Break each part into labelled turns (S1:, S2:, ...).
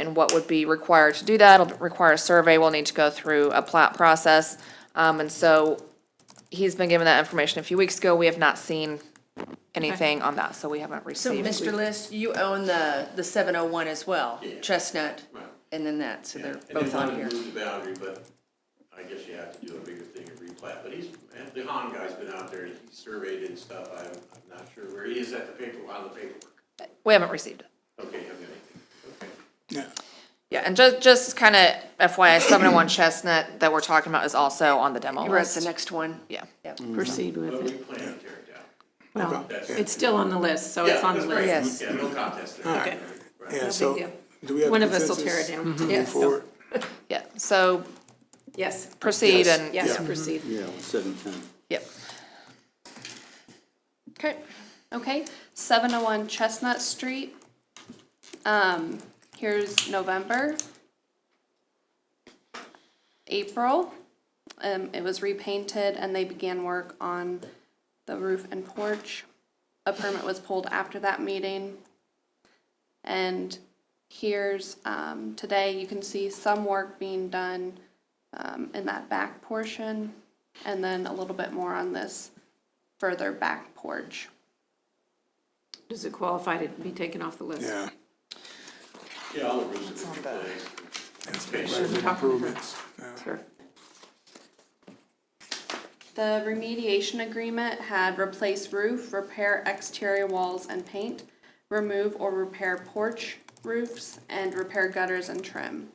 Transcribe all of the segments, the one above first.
S1: and what would be required to do that. It'll require a survey. We'll need to go through a plat process. Um, and so he's been given that information a few weeks ago. We have not seen anything on that, so we haven't
S2: So,
S1: received.
S2: Mr. List, you own the, the seven oh one as well, Chestnut, and then that, so they're
S3: And they
S2: both on
S3: wanted
S2: here.
S3: to move the boundary, but I guess you have to do a bigger thing and replat, but he's, and the Han guy's been out there, and he surveyed and stuff, I'm, I'm not sure where he is at the paper, on the paperwork.
S1: We haven't received it.
S3: Okay, I'm gonna, okay.
S1: Yeah, and just, just kind of FYI, seven oh one Chestnut that we're talking about is also on the demo
S2: You're at the
S1: list.
S2: next one.
S1: Yeah.
S4: proceed
S3: But
S4: with
S3: we
S4: it.
S3: plan to tear it down.
S4: Well,
S3: That's-
S4: it's still on the list, so it's
S3: Yeah,
S4: on the
S3: that's right.
S4: list.
S2: Yes.
S3: Yeah, no contest there.
S5: right.
S3: Right.
S5: Yeah,
S4: No
S5: so,
S4: big
S5: do we have
S4: One of us will tear it
S5: consensus
S4: down.
S5: to move
S2: Yes.
S5: forward?
S1: Yeah, so
S4: Yes,
S1: proceed and,
S4: yes, proceed.
S6: Yeah, seven ten.
S1: yep.
S7: Okay, okay, seven oh one Chestnut Street. Um, here's November. April, um, it was repainted and they began work on the roof and porch. A permit was pulled after that meeting. And here's, um, today, you can see some work being done, um, in that back portion. And then a little bit more on this further back porch.
S4: Does it qualify to be taken off the list?
S5: Yeah,
S3: Yeah, all the roofs have been replaced.
S5: that's massive improvements. Yeah.
S4: Sure.
S7: The remediation agreement had replace roof, repair exterior walls and paint, remove or repair porch roofs, and repair gutters and trim.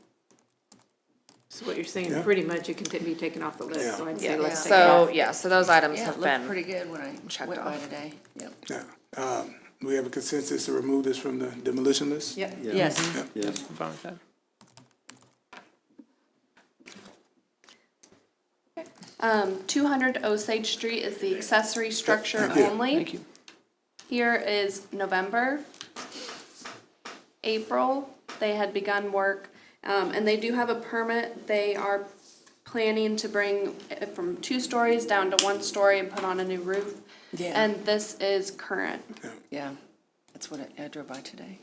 S4: So what you're saying, pretty much it can t- be taken off the list, so I'd say let's take it
S1: So,
S4: off.
S1: yeah, so those items
S2: Yeah,
S1: have
S2: it
S1: been.
S2: looked pretty good when I
S1: checked
S2: went by
S1: off.
S2: today. Yep.
S5: Yeah. Um, Do we have a consensus to remove this from the demolition list?
S2: Yep, yes.
S6: Yes.
S7: Um, two hundred Osage Street is the accessory structure only. Thank you. Here is November. April, they had begun work, um, and they do have a permit. They are planning to bring it from two stories down to one story and put on a new roof.
S2: Yeah.
S7: And this is current.
S2: Yeah, that's what I- I drove by today.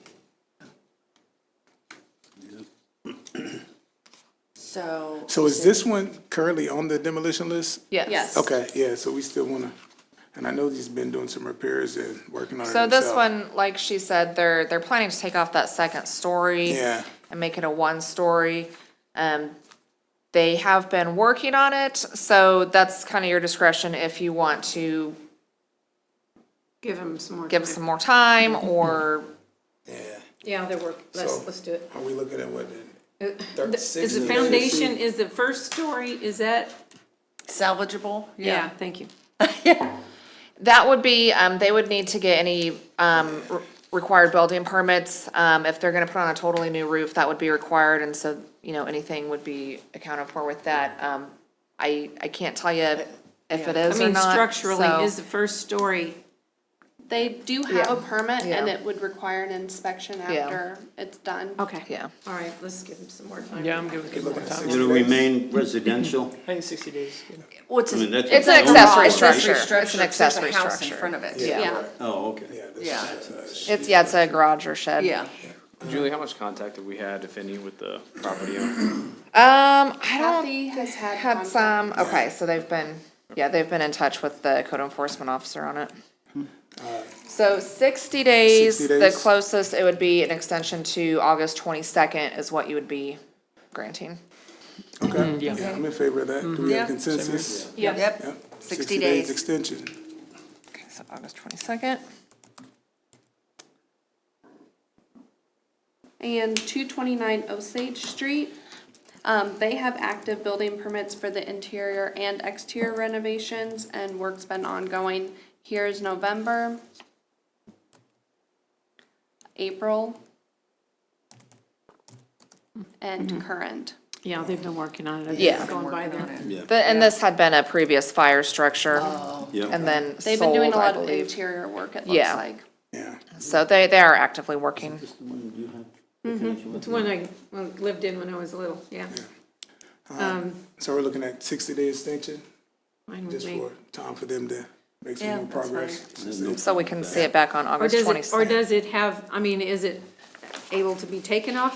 S2: So,
S5: So is this one currently on the demolition list?
S7: Yes.
S5: Okay, yeah, so we still wanna, and I know he's been doing some repairs and working on it
S1: So this
S5: himself.
S1: one, like she said, they're, they're planning to take off that second story.
S5: Yeah.
S1: And make it a one-story. Um, they have been working on it, so that's kind of your discretion if you want to
S4: Give them some more
S1: give
S4: time.
S1: some more time or,
S5: Yeah,
S4: Yeah, they're work,
S5: So-
S4: let's, let's do it.
S5: are we looking at what, in
S4: The- Is the
S5: six-
S4: foundation, is the first story, is that,
S2: salvageable?
S4: yeah, thank you.
S1: that would be, um, they would need to get any, um, re- required building permits. Um, if they're gonna put on a totally new roof, that would be required, and so, you know, anything would be accounted for with that. Um, I, I can't tell you if it
S4: I
S1: is or
S4: mean,
S1: not. so-
S4: structurally, is the first story,
S7: They do have a permit, and
S1: Yeah.
S7: it would require an inspection after it's done.
S4: okay.
S1: Yeah.
S4: All right, let's give them some more time.
S8: Yeah, I'm good with giving more time.
S6: It'll remain residential.
S8: I think sixty days is good.
S2: What's
S6: I mean, that's.
S1: It's an
S6: that's-
S1: accessory
S2: Accessory
S1: structure. It's an
S2: structure, there's
S1: accessory
S2: a house in
S1: structure.
S2: front of it.
S7: Yeah.
S6: Oh, okay.
S5: Yeah, this
S2: Yeah.
S5: is, uh,
S1: It's, yeah, it's a garage or shed.
S2: Yeah,
S8: Julie, how much contact have we had, if any, with the property owner?
S1: Um, I don't,
S7: Kathy has had.
S1: had
S7: contact.
S1: some, okay, so they've been, yeah, they've been in touch with the code enforcement officer on it. So sixty days,
S5: 60
S1: the
S5: days.
S1: closest it would be an extension to August twenty-second is what you would be granting.
S5: Okay, yeah, I'm in favor of that.
S4: Mm-hmm.
S5: Do we have consensus?
S2: yep,
S5: Yep.
S2: 60 days.
S5: Extension.
S1: Okay, so August twenty-second.
S7: and two twenty-nine Osage Street. Um, they have active building permits for the interior and exterior renovations, and work's been ongoing. Here's November, April, and
S1: Mm-hmm.
S7: current.
S4: Yeah, they've been working on it. I've
S1: Yeah.
S4: been going by
S2: working on
S4: there.
S2: it.
S1: The, and this had been a previous fire structure and
S6: Yeah,
S1: then
S7: They've been doing
S1: sold, I
S7: a lot of
S1: believe.
S7: interior work, it looks
S1: Yeah.
S7: like.
S5: Yeah,
S1: So they, they are actively working.
S4: It's one I well, lived in when I was little, yeah. Um,
S5: Um, so we're looking at sixty day extension,
S4: Mine was
S5: just
S4: me.
S5: for time for them to make some
S2: Yeah,
S5: more
S2: that's fine.
S5: progress.
S1: So we can see it back on
S4: Or
S1: August
S4: does it,
S1: twenty-second.
S4: or does it have, I mean, is it able to be taken off